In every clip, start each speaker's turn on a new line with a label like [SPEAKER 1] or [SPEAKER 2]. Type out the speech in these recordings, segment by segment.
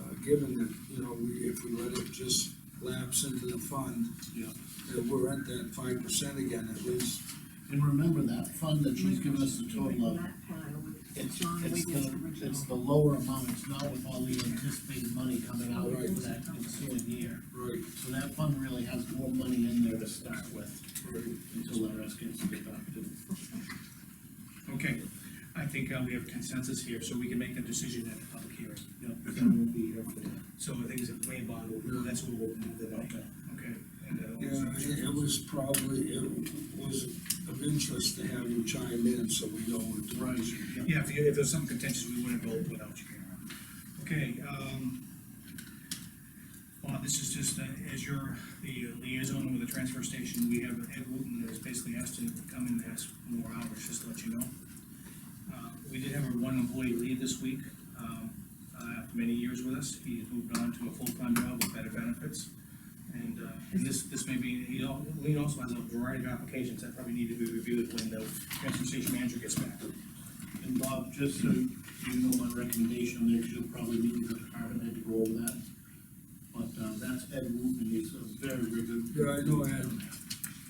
[SPEAKER 1] uh, given that, you know, we, if we let it just lapse into the fund,
[SPEAKER 2] Yeah.
[SPEAKER 1] that we're at that five percent again, at least.
[SPEAKER 2] And remember that fund that she's given us a total of,
[SPEAKER 3] That pile with
[SPEAKER 2] it's,
[SPEAKER 3] John
[SPEAKER 2] it's
[SPEAKER 3] Wigan's
[SPEAKER 2] the, it's the
[SPEAKER 3] original.
[SPEAKER 2] lower amount, it's not with all the anticipated money coming out for that ensuing year.
[SPEAKER 1] Right,
[SPEAKER 2] So that fund really has more money in there to start with,
[SPEAKER 1] right.
[SPEAKER 2] until the rest gets deducted.
[SPEAKER 4] Okay, I think uh, we have consensus here, so we can make the decision at the public hearing.
[SPEAKER 2] Because I won't be here for that.
[SPEAKER 4] So I think it's a plain bond, we'll- that's what we'll move it up, okay? and, uh,
[SPEAKER 1] Yeah, I think it was probably, it was of interest to have you chime in, so we know what to
[SPEAKER 2] Right.
[SPEAKER 4] Yeah, if you, if there's some contentious, we wouldn't vote without you, Karen. Okay, um, well, this is just, uh, as you're the liaison with the transfer station, we have Ed Wooten has basically asked to come in and ask more hours, just to let you know. Uh, we did have one employee leave this week, um, uh, after many years with us, he moved on to a full-time job with better benefits. And, uh, and this, this may be, he al- Lean also has a variety of applications that probably need to be reviewed when the transfer station manager gets back.
[SPEAKER 2] And Bob, just so you know, my recommendation there, you'll probably meet with the department head to go over that. But, uh, that's Ed Wooten, he's a very, very good.
[SPEAKER 1] Yeah, I know Ed.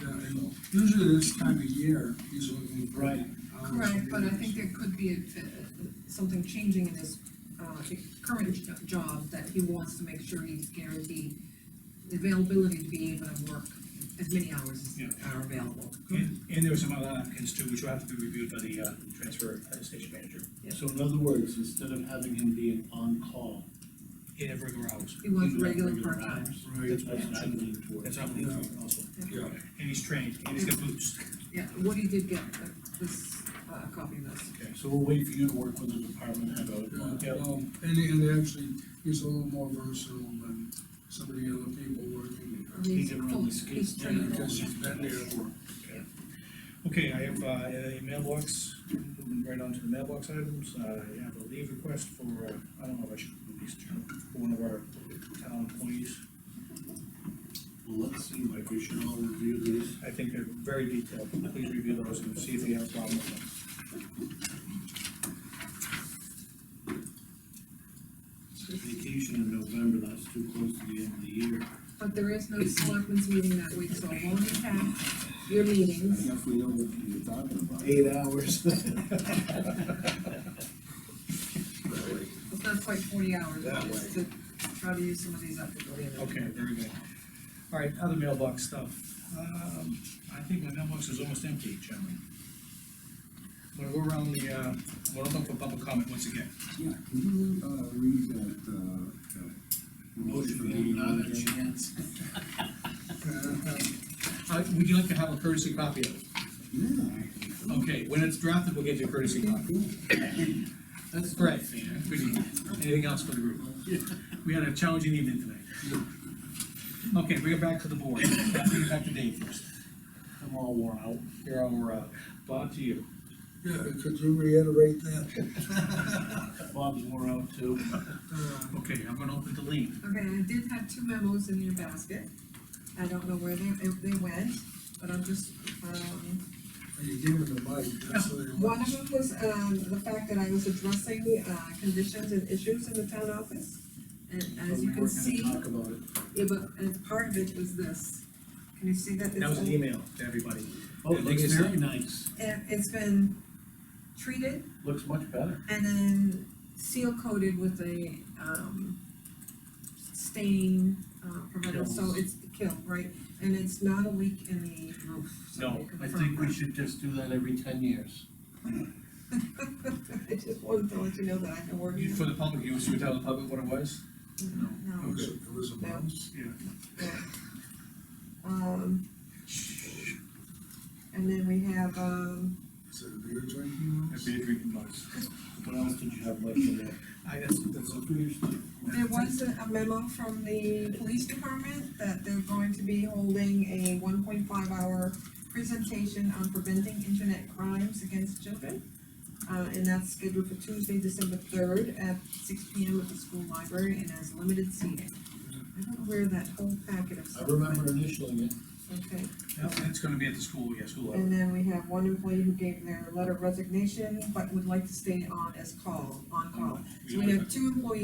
[SPEAKER 1] Yeah, I know. Usually this time of year, he's looking. for
[SPEAKER 2] Right.
[SPEAKER 1] hours.
[SPEAKER 3] Correct, but I think there could be a- a- something changing in his, uh, current jo- job, that he wants to make sure he's guaranteed the availability to be able to work as many hours
[SPEAKER 4] Yeah.
[SPEAKER 3] as are available.
[SPEAKER 4] And, and there were some other applicants too, which will have to be reviewed by the, uh, transfer uh, station manager.
[SPEAKER 2] So in other words, instead of having him being on call.
[SPEAKER 4] In every hours.
[SPEAKER 3] He wants
[SPEAKER 2] he would have
[SPEAKER 3] regular part-time.
[SPEAKER 2] hours.
[SPEAKER 1] Right,
[SPEAKER 2] That's what I'm leaning towards.
[SPEAKER 4] That's what we doing also.
[SPEAKER 1] yeah.
[SPEAKER 4] And he's trained, and he's got boots.
[SPEAKER 3] Yeah, Woody did get uh, this, uh, copy of this.
[SPEAKER 2] So we'll wait for you to work with the department head on it.
[SPEAKER 1] Yeah, no, and, and actually, he's a little more versatile than some of the other people working there.
[SPEAKER 2] He can run
[SPEAKER 3] full-
[SPEAKER 2] the skates
[SPEAKER 3] he's trained.
[SPEAKER 2] down.
[SPEAKER 1] Because he's been there for,
[SPEAKER 4] Okay, I have, uh, a mailbox, moving right on to the mailbox items, uh, I have a leave request for, uh, I don't know if I should release this, for one of our town employees.
[SPEAKER 2] Well, let's see, Mike, we should all review these.
[SPEAKER 4] I think they're very detailed, please review those and see if you have a problem with them.
[SPEAKER 2] Vacation in November, that's too close to the end of the year.
[SPEAKER 3] But there is no selectmen's meeting that week, so I won't attack your meetings.
[SPEAKER 5] If we know what you're talking about.
[SPEAKER 2] Eight hours.
[SPEAKER 3] It's not quite forty hours, but
[SPEAKER 1] That
[SPEAKER 3] it's to try to use some of these up before the end of the
[SPEAKER 4] Okay, very good. All right, other mailbox stuff. Um, I think my mailbox is almost empty, gentlemen. I'm gonna go around the, uh, I'm gonna look for public comment once again.
[SPEAKER 5] Yeah, can you, uh, read that, uh, that motion for
[SPEAKER 2] Motion,
[SPEAKER 5] meeting
[SPEAKER 2] not
[SPEAKER 5] on
[SPEAKER 2] a
[SPEAKER 5] again?
[SPEAKER 2] chance.
[SPEAKER 4] Uh, would you like to have a courtesy copy of it?
[SPEAKER 5] Yeah.
[SPEAKER 4] Okay, when it's drafted, we'll get you a courtesy copy.
[SPEAKER 2] That's right,
[SPEAKER 4] Right.
[SPEAKER 2] fair.
[SPEAKER 4] Pretty- Anything else for the group? We had a challenging evening tonight. Okay, bring it back to the board. Uh, Bring it back to Dave first.
[SPEAKER 2] I'm all worn out.
[SPEAKER 4] You're our, uh, Bob, to you.
[SPEAKER 1] yeah, could you reiterate that?
[SPEAKER 2] Bob's worn out too.
[SPEAKER 1] Uh,
[SPEAKER 4] Okay, I'm gonna open the lead.
[SPEAKER 3] Okay, I did have two memos in your basket. I don't know where they, if they went, but I'm just, um,
[SPEAKER 1] You give him the mic, that's what he
[SPEAKER 3] One
[SPEAKER 1] wants.
[SPEAKER 3] of them was, um, the fact that I was addressing, uh, conditions and issues in the town office. And
[SPEAKER 2] But
[SPEAKER 3] as
[SPEAKER 2] we
[SPEAKER 3] you
[SPEAKER 2] were
[SPEAKER 3] can
[SPEAKER 2] gonna
[SPEAKER 3] see,
[SPEAKER 2] Talk about it.
[SPEAKER 3] yeah, but, and part of it was this. Can you see that?
[SPEAKER 4] That was
[SPEAKER 3] It's
[SPEAKER 4] an
[SPEAKER 3] all-
[SPEAKER 4] email to everybody.
[SPEAKER 2] Oh,
[SPEAKER 4] it
[SPEAKER 2] it looks
[SPEAKER 4] looks
[SPEAKER 2] very nice.
[SPEAKER 3] And it's been treated
[SPEAKER 2] Looks much better.
[SPEAKER 3] and then seal coated with a, um, stain, uh, preventer, so
[SPEAKER 2] Kills.
[SPEAKER 3] it's killed, right? And it's not a leak in the roof, so.
[SPEAKER 4] No,
[SPEAKER 2] I
[SPEAKER 3] confirm
[SPEAKER 2] think
[SPEAKER 3] that.
[SPEAKER 2] we should just do that every ten years.
[SPEAKER 3] I just wanted to let you know that I've been working.
[SPEAKER 4] For the public, you wish to tell the public what it was?
[SPEAKER 1] It
[SPEAKER 3] No,
[SPEAKER 1] was, it was a mouse.
[SPEAKER 4] Yeah.
[SPEAKER 3] yeah. Um. And then we have, um,
[SPEAKER 1] Is it a beer drinking
[SPEAKER 4] A
[SPEAKER 1] mouse?
[SPEAKER 4] beer drinking noise.
[SPEAKER 2] What else did you have left in there?
[SPEAKER 4] I, that's, that's,
[SPEAKER 3] there was a a memo from the police department that they're going to be holding a one point five hour presentation on preventing internet crimes against children. Uh, and that's scheduled for Tuesday, December third at six P M at the school library and has limited seating. I don't know where that whole packet of
[SPEAKER 2] I
[SPEAKER 3] stuff went.
[SPEAKER 2] remember initialing it.
[SPEAKER 3] Okay.
[SPEAKER 4] that's- that's gonna be at the school, yeah, school hour.
[SPEAKER 3] And then we have one employee who gave their letter of resignation, but would like to stay on as call, on call. So we have two employees